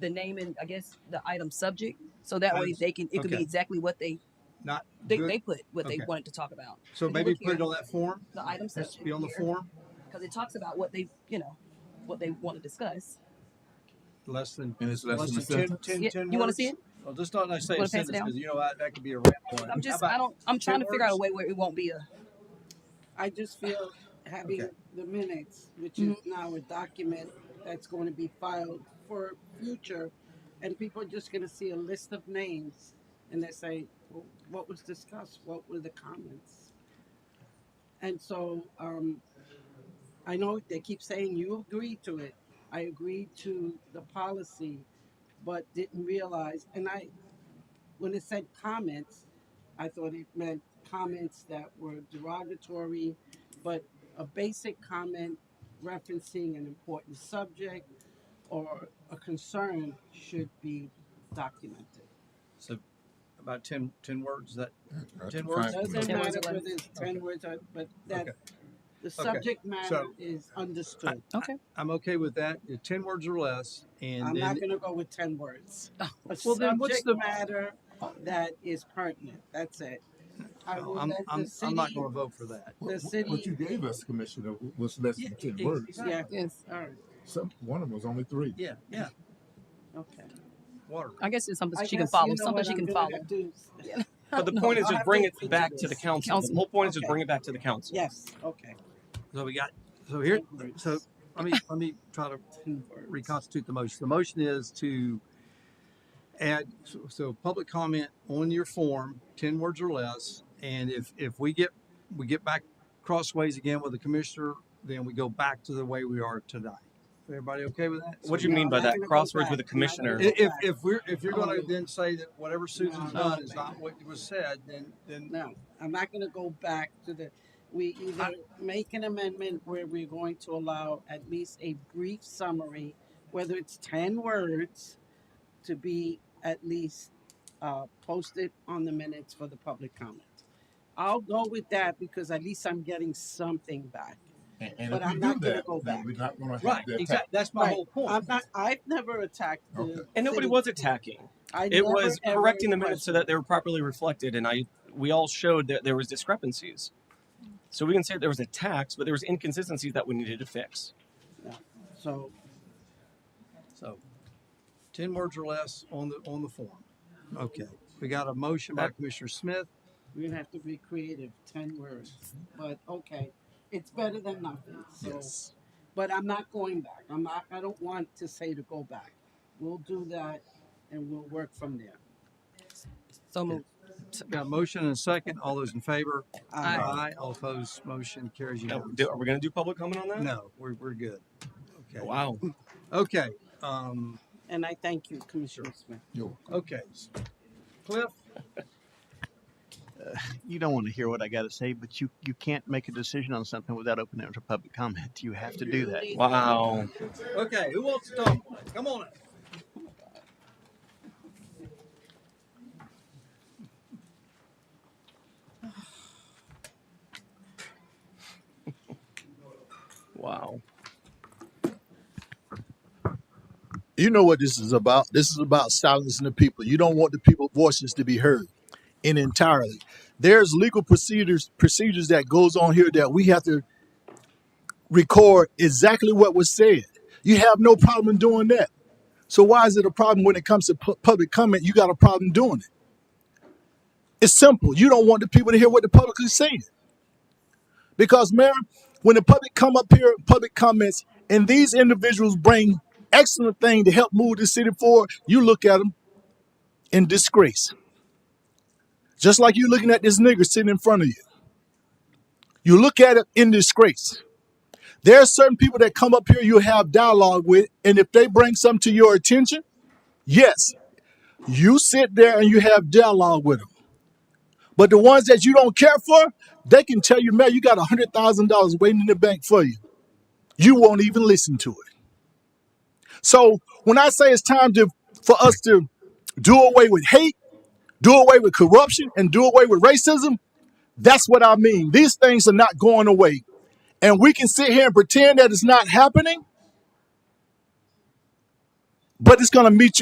the name and I guess the item subject, so that way they can, it could be Okay. exactly what they, Not they, good. they put what they Okay. wanted to talk about. So If you maybe look put it here, on that form. The item Has subject to be on the here, form, because it talks about what they, you know, what they want to discuss. less than. And it's less than a ten- sentence. ten- Yeah, ten you want to words? see it? Well, just don't like say wanna a pass it sentence, down? because you know, what, that could be a rap one. I'm just, How I about- don't, I'm trying to figure out a words? way where it won't be a, I just feel having Okay. the minutes, which is now a document that's going to be filed for future, and people are just going to see a list of names and they say, well, what was discussed? What were the comments? And so um, I know they keep saying you agreed to it. I agreed to the policy, but didn't realize. And I, when it said comments, I thought it meant comments that were derogatory, but a basic comment referencing an important subject or a concern should be documented. So about ten, ten words, is that, That's Ten a words? fine- Doesn't Ten matter words, whether eleven. it's ten words, or- but that, Okay. the subject matter So- is understood. okay. I'm okay with that, Yeah, ten words or less, I'm and not then, gonna go with ten words. A Oh, Well, then what's subject the- matter that is pertinent, that's it. I will I'm, let the I'm, I'm not city- gonna vote for that. What- The what- What city- you gave us, Commissioner, was less than ten Yeah, words. exactly. Yeah, yes, all right, Some, one of them was only three. Yeah, yeah, okay. water. I guess it's something I she can guess you follow, know something what she I'm can gonna follow. do. But the No, point is I'll just have bring to it read back this. to the council. Council. The whole point is Okay. just bring it back to the council. Yes, okay. So we got, so here, Ten so let me, let me try to Ten words. reconstitute the motion. The motion is to add, so- so public comment on your form, ten words or less. And if, if we get, we get back crossways again with the commissioner, then we go back to the way we are tonight. Everybody okay with that? What do you No, mean by I'm that? gonna go Crosswords back. with a commissioner. No. If, if- if we're, if you're gonna Oh. then say that whatever Susan's No. done is not what was said, then, then, No, I'm not gonna go back to the, we either make an amendment where we're going to allow at least a brief summary, whether it's ten words, to be at least, uh, posted on the minutes for the public comment. I'll go with that because at least I'm getting something back. And, and But if I'm we do not gonna that, go then back. we're not gonna right, have that exactly, type. that's my Right. whole point. I'm not, I've never attacked the. Okay. And nobody city. was attacking. I It never, was ever correcting the minutes so questioned. that they were properly reflected, and I we all showed that there was discrepancies. So we can say there was attacks, but there was inconsistencies that we needed to fix. So, So, ten words or less on the, on the form. Okay, we got a motion by That- Commissioner Smith. We're gonna have to be creative, ten words, but okay, it's better than nothing, so. But I'm not going back, I'm not, I don't want to say to go back. We'll do that and we'll work from there. So move. Got a motion and a second. All those in favor? Aye. All opposed, motion carries Now, unanimously. do- are we going to do public comment on that? No, we're, we're good. Okay. Wow. Okay, um, And I thank you, Commissioner Smith. Yo, okay. Cliff, you don't want to hear what I got to say, but you, you can't make a decision on something without opening it to public comment. You have to do that. Wow. okay, who wants to talk? Come on. up. Wow. you know what this is about. This is about silencing the people. You don't want the people's voices to be heard in entirely. There's legal procedures procedures that goes on here that we have to record exactly what was said. You have no problem doing that. So why is it a problem when it comes to pu- public comment? You got a problem doing it. It's simple. You don't want the people to hear what the public is saying. Because, Mayor, when the public come up here, public comments, and these individuals bring excellent thing to help move the city forward, you look at them in disgrace. Just like you looking at this nigger sitting in front of you. You look at it in disgrace. There are certain people that come up here you have dialogue with, and if they bring something to your attention, yes, you sit there and you have dialogue with them. But the ones that you don't care for, they can tell you, man, you got $100,000 waiting in the bank for you. You won't even listen to it. So when I say it's time to for us to do away with hate, do away with corruption, and do away with racism, that's what I mean. These things are not going away. And we can sit here and pretend that it's not happening. but it's going to meet you.